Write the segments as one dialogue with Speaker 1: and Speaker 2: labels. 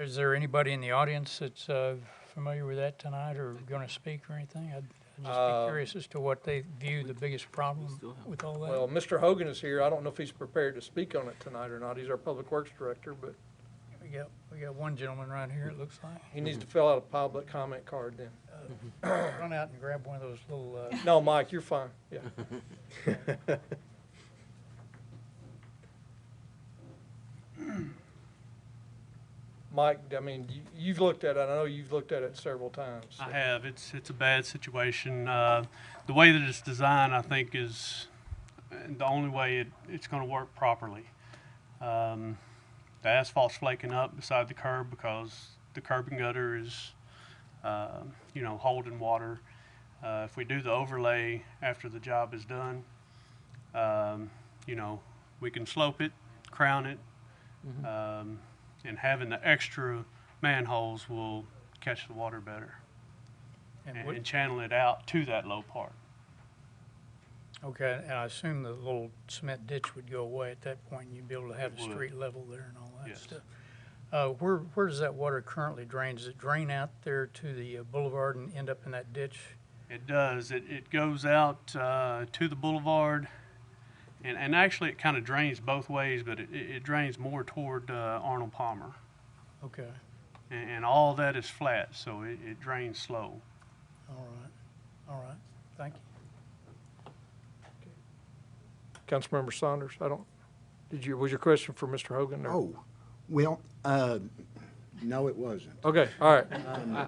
Speaker 1: Is there anybody in the audience that's uh, familiar with that tonight or going to speak or anything? I'd I'd just
Speaker 2: Uh,
Speaker 1: be curious as to what they view the biggest problem with all that.
Speaker 2: Well, Mr. Hogan is here. I don't know if he's prepared to speak on it tonight or not. He's our Public Works Director, but
Speaker 1: We got, we got one gentleman right here, it looks like.
Speaker 2: he needs
Speaker 3: Mm-hmm.
Speaker 2: to fill out a public comment card then.
Speaker 1: Run out and grab one of those little, uh,
Speaker 2: No, Mike, you're fine. Yeah. Mike, I mean, you- you've looked at it. I know you've looked at it several times.
Speaker 3: I have. It's it's a bad situation. Uh, the way that it's designed, I think, is the only way it, it's going to work properly. Um, the asphalt's flaking up beside the curb because the curb and gutter is, uh, you know, holding water. Uh, if we do the overlay after the job is done, um, you know, we can slope it, crown it, um, and having the extra manholes will catch the water better
Speaker 1: and
Speaker 3: and,
Speaker 1: what-
Speaker 4: Mm-hmm.
Speaker 3: and channel it out to that low part.
Speaker 1: okay, and I assume the little cement ditch would go away at that point, and you'd be able to have
Speaker 3: It
Speaker 1: the
Speaker 3: would.
Speaker 1: street level there and all that
Speaker 3: Yes.
Speaker 1: stuff. Uh, Where, where does that water currently drain? Does it drain out there to the uh, boulevard and end up in that ditch?
Speaker 3: It does. It, it goes out uh, to the boulevard, and, and actually it kind of drains both ways, but it, it it drains more toward uh, Arnold Palmer.
Speaker 1: Okay,
Speaker 3: And, and all that is flat, so it, it drains slow.
Speaker 1: all right, all right, thank you.
Speaker 2: Councilmember Saunders, I don't, did you, was your question for Mr. Hogan? or-
Speaker 5: Oh, well, uh, no, it wasn't.
Speaker 2: Okay, all right.
Speaker 3: Um,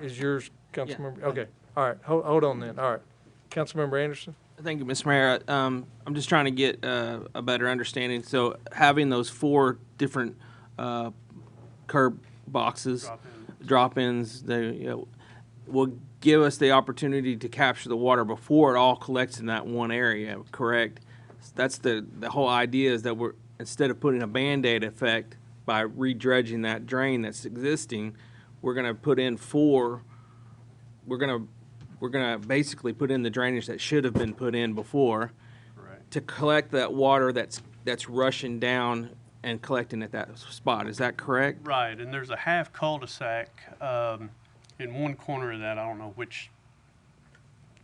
Speaker 2: Is yours, Councilmember, okay, all right, hold, hold on then, all right. Councilmember Anderson?
Speaker 4: Thank you, Ms. Mayor. Um, I'm just trying to get uh, a better understanding. So having those four different uh, curb boxes,
Speaker 3: Drop-in.
Speaker 4: drop-ins, they, you know, will give us the opportunity to capture the water before it all collects in that one area, correct? That's the, the whole idea is that we're, instead of putting a Band-Aid effect by redredging that drain that's existing, we're gonna put in four we're gonna we're gonna basically put in the drainage that should have been put in before
Speaker 3: Correct.
Speaker 4: to collect that water that's that's rushing down and collecting at that spot. Is that correct?
Speaker 3: Right, and there's a half cul-de-sac um, in one corner of that. I don't know which.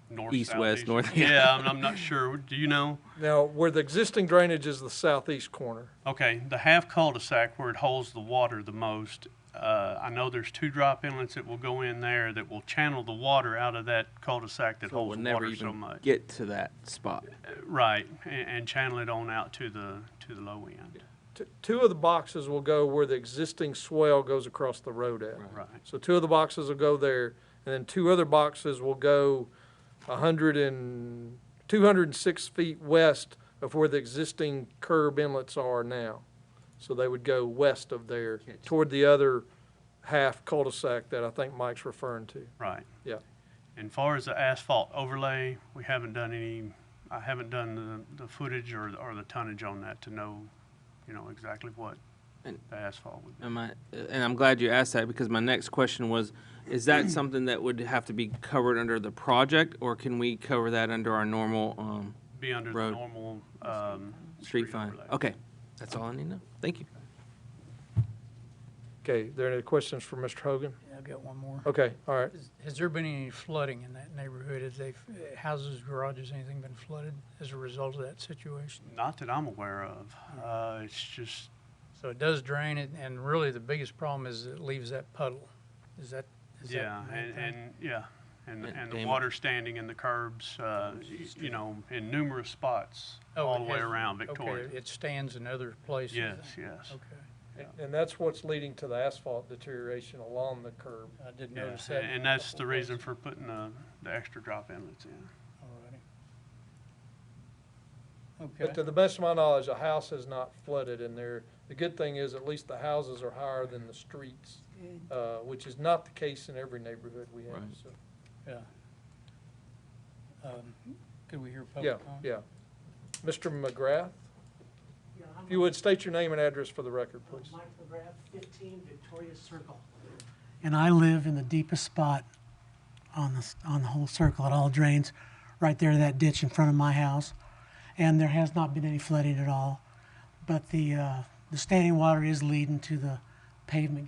Speaker 3: North,
Speaker 4: East,
Speaker 3: south,
Speaker 4: west,
Speaker 3: east.
Speaker 4: north.
Speaker 3: Yeah, I'm, I'm not sure. Do you know?
Speaker 2: Now, where the existing drainage is the southeast corner.
Speaker 3: Okay, the half cul-de-sac where it holds the water the most, uh, I know there's two drop inlets that will go in there that will channel the water out of that cul-de-sac that
Speaker 4: So we'll
Speaker 3: holds the
Speaker 4: never
Speaker 3: water
Speaker 4: even
Speaker 3: so much.
Speaker 4: get to that spot.
Speaker 3: Right, and, and channel it on out to the, to the low end.
Speaker 2: T- Two of the boxes will go where the existing swell goes across the road at.
Speaker 3: Right,
Speaker 2: So two of the boxes will go there, and then two other boxes will go a hundred and, two hundred and six feet west of where the existing curb inlets are now. So they would go west of there, toward the other half cul-de-sac that I think Mike's referring to.
Speaker 3: right.
Speaker 2: Yeah.
Speaker 3: And far as the asphalt overlay, we haven't done any, I haven't done the, the footage or, or the tonnage on that to know, you know, exactly what
Speaker 4: And-
Speaker 3: the asphalt would be.
Speaker 4: Am I, and I'm glad you asked that because my next question was, is that something that would have to be covered under the project, or can we cover that under our normal um,
Speaker 3: Be under the
Speaker 4: Road.
Speaker 3: normal, um.
Speaker 4: street fund?
Speaker 3: overlay.
Speaker 4: Okay, that's all I need to know. Thank you.
Speaker 2: Okay, there any questions for Mr. Hogan?
Speaker 1: Yeah, I've got one more.
Speaker 2: Okay, all right.
Speaker 1: Has- Has there been any flooding in that neighborhood? Has they, houses, garages, anything been flooded as a result of that situation?
Speaker 3: Not that I'm aware of. Uh, it's just,
Speaker 1: So it does drain it, and really the biggest problem is it leaves that puddle. Is that? is that the
Speaker 3: yeah,
Speaker 1: main
Speaker 3: and,
Speaker 1: thing?
Speaker 3: and, yeah. And,
Speaker 4: And
Speaker 3: and the
Speaker 4: damage.
Speaker 3: water standing in the curbs, uh, y- you know, in numerous spots
Speaker 1: Oh,
Speaker 3: all
Speaker 1: it
Speaker 3: the way
Speaker 1: has-
Speaker 3: around
Speaker 1: okay,
Speaker 3: Victoria.
Speaker 1: It stands in other places.
Speaker 3: Yes,
Speaker 1: then?
Speaker 3: yes.
Speaker 1: Okay,
Speaker 2: And that's what's leading to the asphalt deterioration along the curb.
Speaker 1: I did
Speaker 3: Yeah,
Speaker 1: notice that.
Speaker 3: And and that's the reason for putting the, the extra drop inlets in.
Speaker 1: All righty.
Speaker 2: But to
Speaker 1: Okay,
Speaker 2: the best of my knowledge, a house is not flooded in there. The good thing is, at least the houses are higher than the streets, uh, which is not the case in every neighborhood we have,
Speaker 4: Right.
Speaker 2: so.
Speaker 1: um, could we hear
Speaker 2: Yeah,
Speaker 1: public comment?
Speaker 2: yeah. Mr. McGrath, if you would state your name and address for the record, please.
Speaker 6: Mike McGrath, 15 Victoria Circle. And I live in the deepest spot on the, s- on the whole circle. It all drains right there to that ditch in front of my house. And there has not been any flooding at all. But the, uh, the standing water is leading to the pavement